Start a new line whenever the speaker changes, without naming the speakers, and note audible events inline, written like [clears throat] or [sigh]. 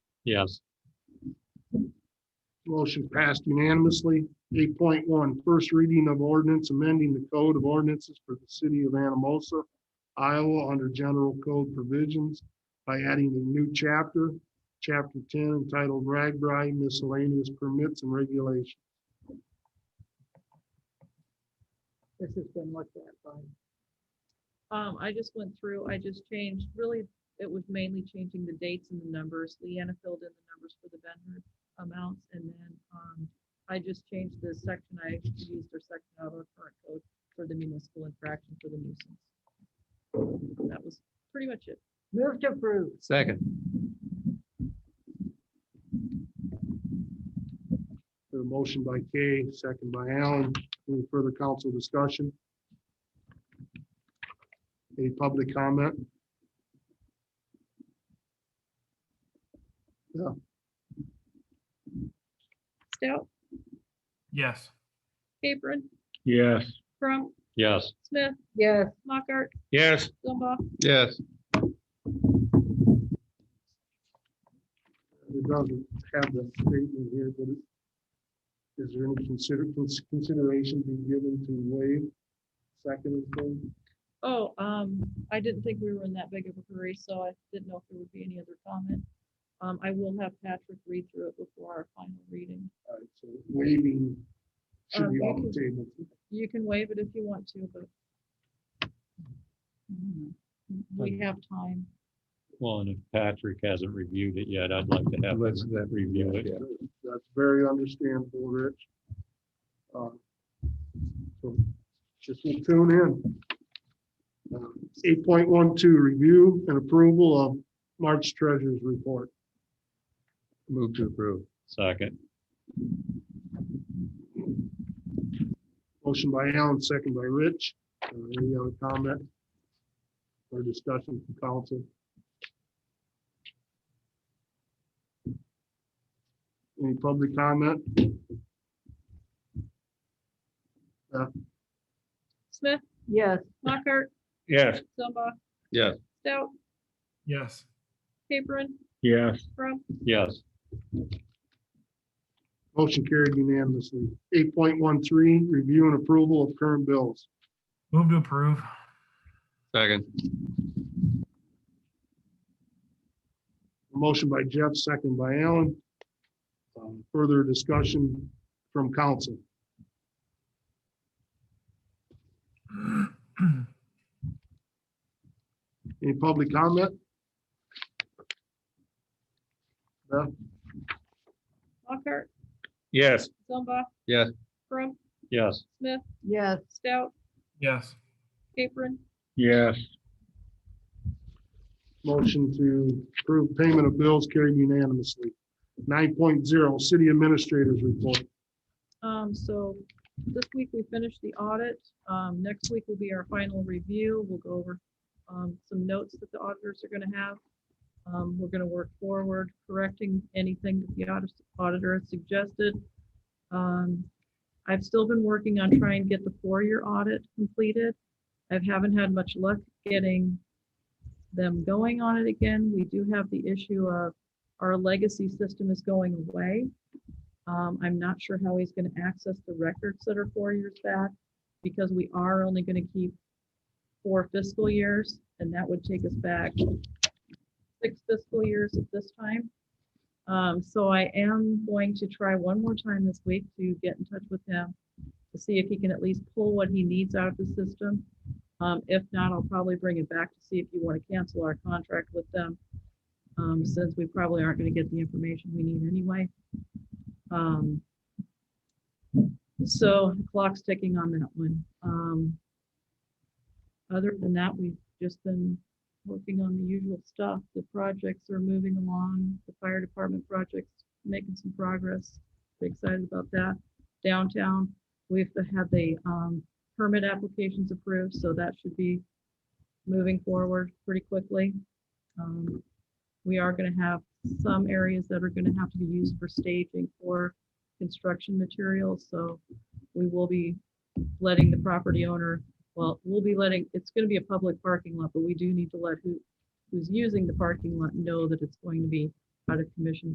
Yes.
Motion passed unanimously. 8.1, First reading of ordinance amending the code of ordinances for the city of Anamosa, Iowa, under general code provisions by adding a new chapter, chapter ten entitled Ragbri miscellaneous permits and regulations.
This has been looked at by,
Um, I just went through, I just changed, really, it was mainly changing the dates and the numbers. Leanna filled in the numbers for the vendor amounts and then, um, I just changed the section I used or section out of our current code for the municipal infraction for the nuisance. That was pretty much it.
move to approve,
Second.
The motion by Kay, second by Allen. Any further council discussion? Any public comment?
Stout,
yes.
Capron,
Yes.
Crump,
Yes.
Smith,
yes,
Mockart,
Yes.
Zumba.
Yes.
It doesn't have the statement here, but it- is there any consider, cons- consideration being given to waive second and third?
Oh, um, I didn't think we were in that big of a hurry, so I didn't know if there would be any other comment. Um, I will have Patrick read through it before our final reading.
All right, so waiving should
Um,
be
you
off the table.
You can waive it if you want to, but we have time.
Well, and if Patrick hasn't reviewed it yet, I'd like to have him review it.
That's very understandable, Rich. Uh, so Just will tune in. Eight point one two, review and approval of March treasurer's report.
Move to approve. Second.
Motion by Allen, second by Rich. Uh, Any other comment? Or discussion from council? Any public comment?
Smith,
yes,
Mockart,
Yes.
Zumba.
Yes.
Stout,
Yes,
Capron,
Yes.
Crump,
Yes.
Motion carried unanimously. Eight point one three, review and approval of current bills.
move to approve.
Second.
Motion by Jeff, second by Allen. Um, Further discussion from council. [clears throat] Any public comment? Beth?
Mockart,
Yes.
Zumba.
Yes.
Crump,
Yes.
Smith,
yes,
Stout,
Yes,
Capron,
Yes.
Motion to approve payment of bills carried unanimously. Nine city administrators report.
Um, so this week we finished the audit. Um, next week will be our final review. We'll go over um, some notes that the auditors are gonna have. Um, we're gonna work forward correcting anything that the audit- auditor has suggested. Um, I've still been working on trying to get the four-year audit completed. I haven't had much luck getting them going on it again. We do have the issue of our legacy system is going away. Um, I'm not sure how he's gonna access the records that are four years back, because we are only gonna keep four fiscal years, and that would take us back six fiscal years at this time. Um, so I am going to try one more time this week to get in touch with him to see if he can at least pull what he needs out of the system. Um, if not, I'll probably bring it back to see if you wanna cancel our contract with them, um, since we probably aren't gonna get the information we need anyway. Um, so the clock's ticking on that one. Um, other than that, we've just been working on the usual stuff. The projects are moving along. The fire department projects making some progress. We're Excited about that. Downtown, we've had the, um, permit applications approved, so that should be moving forward pretty quickly. Um, we are gonna have some areas that are gonna have to be used for staging for construction materials, so we will be letting the property owner, well, we'll be letting, it's gonna be a public parking lot, but we do need to let who, who's using the parking lot know that it's going to be out of commission